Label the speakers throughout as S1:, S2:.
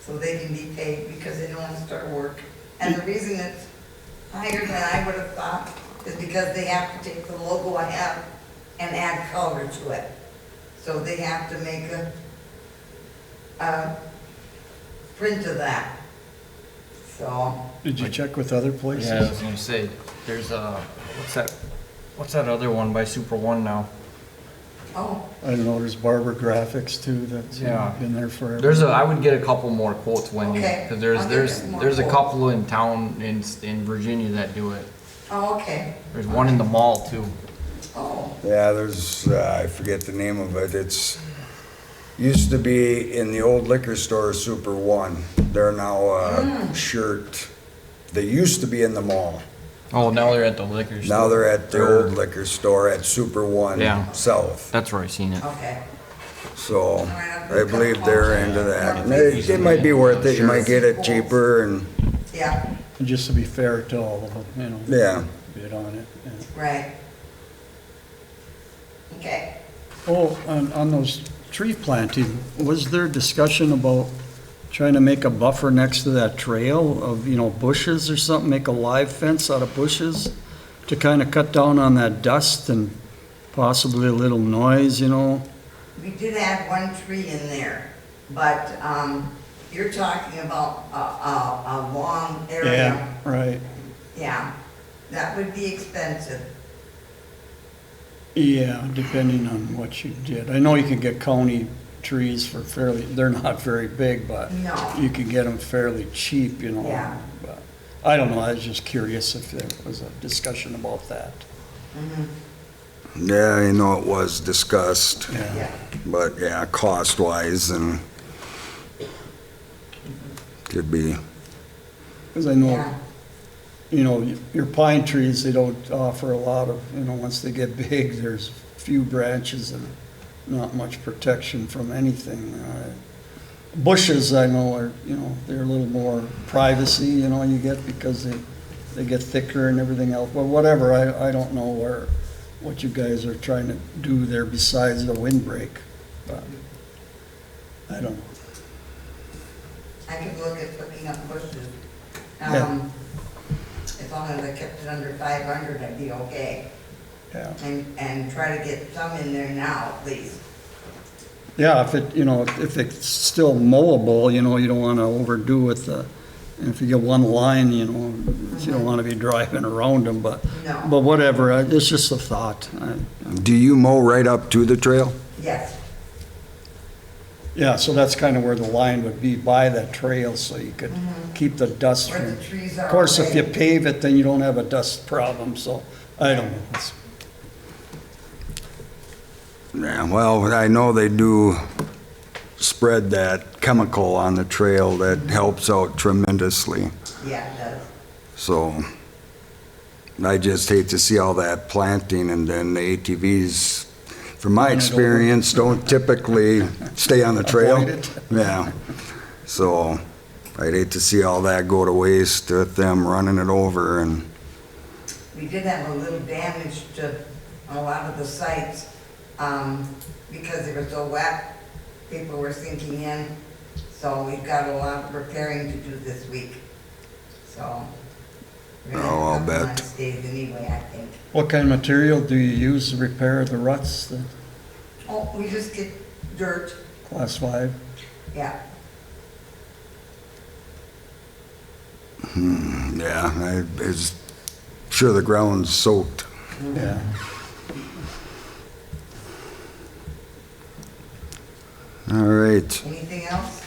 S1: so they can be paid because they don't want to start work. And the reason it's higher than I would have thought is because they have to take the logo I have and add color to it. So they have to make a, a print of that. So,
S2: Did you check with other places?
S3: Yeah, I was gonna say, there's a, what's that, what's that other one by Super One now?
S1: oh,
S2: I don't know, there's Barber Graphics too, that's
S3: Yeah.
S2: been there forever.
S3: There's a, I would get a couple more quotes, Wendy,
S1: Okay,
S3: because there's,
S1: I'll get
S3: there's,
S1: some more
S3: there's a
S1: quotes.
S3: couple in town in, in Virginia that do it.
S1: oh, okay,
S3: There's one in the mall too.
S1: oh,
S4: Yeah, there's, uh, I forget the name of it, it's, used to be in the old liquor store, Super One. They're now a shirt, they used to be in the mall.
S3: Oh, now they're at the liquor store.
S4: Now they're at the old liquor store at Super
S3: Yeah.
S4: One South.
S3: That's where I seen it.
S1: okay.
S4: So I believe they're into that. And It it might be worth it, you might get it cheaper and,
S1: Yeah,
S2: And just to be fair to all of them, you know.
S4: yeah.
S2: Bid on it. yeah.
S1: right. Okay,
S2: Oh, on, on those tree planting, was there discussion about trying to make a buffer next to that trail of, you know, bushes or something? Make a live fence out of bushes to kind of cut down on that dust and possibly a little noise, you know?
S1: we did add one tree in there, but, um, you're talking about a, a, a long area.
S2: Right.
S1: Yeah, that would be expensive.
S2: Yeah, depending on what you did. I know you can get county trees for fairly, they're not very big, but
S1: No.
S2: you can get them fairly cheap, you know?
S1: Yeah.
S2: But I don't know, I was just curious if there was a discussion about that.
S1: Mm-hmm.
S4: Yeah, I know it was discussed,
S1: Yeah,
S4: but yeah, cost-wise and could be,
S2: Because I
S1: yeah,
S2: know, you know, your pine trees, they don't offer a lot of, you know, once they get big, there's few branches and not much protection from anything. Uh, Bushes, I know, are, you know, they're a little more privacy, you know, you get because they, they get thicker and everything else. But whatever, I, I don't know where, what you guys are trying to do there besides the windbreak. But I don't know.
S1: I could look at picking up bushes.
S2: Yeah.
S1: Um, as long as I kept it under five hundred, I'd be okay,
S2: Yeah.
S1: and, and try to get some in there now, at least.
S2: Yeah, if it, you know, if it's still mowable, you know, you don't want to overdo with the, if you get one line, you know, you don't want to be driving around them, but,
S1: No.
S2: but whatever, I- it's just a thought. I-
S4: do you mow right up to the trail?
S1: Yes,
S2: Yeah, so that's kind of where the line would be by that trail, so you could keep the dust
S1: Mm-hmm. where
S2: from.
S1: the trees are.
S2: Of course, if you
S1: already.
S2: pave it, then you don't have a dust problem, so, I don't know. It's-
S4: Yeah, well, I know they do spread that chemical on the trail that helps out tremendously.
S1: Yeah, it does.
S4: So I just hate to see all that planting and then the ATVs, from my experience, don't typically stay on the trail.
S2: Avoid it.
S4: Yeah. So I'd hate to see all that go to waste with them running it over and,
S1: We did have a little damage to a lot of the sites, um, because they were so wet, people were sinking in, so we've got a lot of repairing to do this week, so. we're gonna have
S4: Oh, I'll
S1: some
S4: bet.
S1: nice Days anyway, I think.
S2: What kind of material do you use to repair the ruts, the
S1: Oh, we just get dirt,
S2: class five?
S1: yeah,
S4: Hmm, yeah, I, it's, sure the ground's soaked.
S2: Yeah.
S4: All right.
S1: anything else?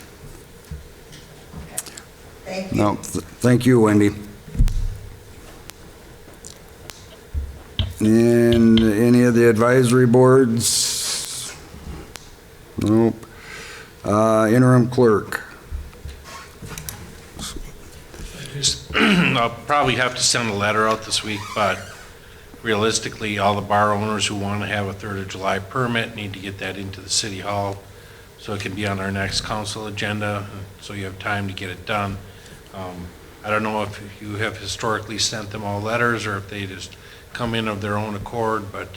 S1: Okay. Thank you.
S4: No, th- thank you, Wendy. And any of the advisory boards? Nope. Uh, interim clerk.
S5: Just- I'll probably have to send a letter out this week, but realistically, all the bar owners who want to have a Third of July permit need to get that into the city hall so it can be on our next council agenda, so you have time to get it done. Um, I don't know if you have historically sent them all letters or if they just come in of their own accord, but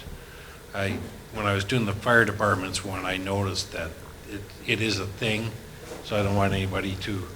S5: I, when I was doing the fire department's one, I noticed that it, it is a thing. So I don't want anybody to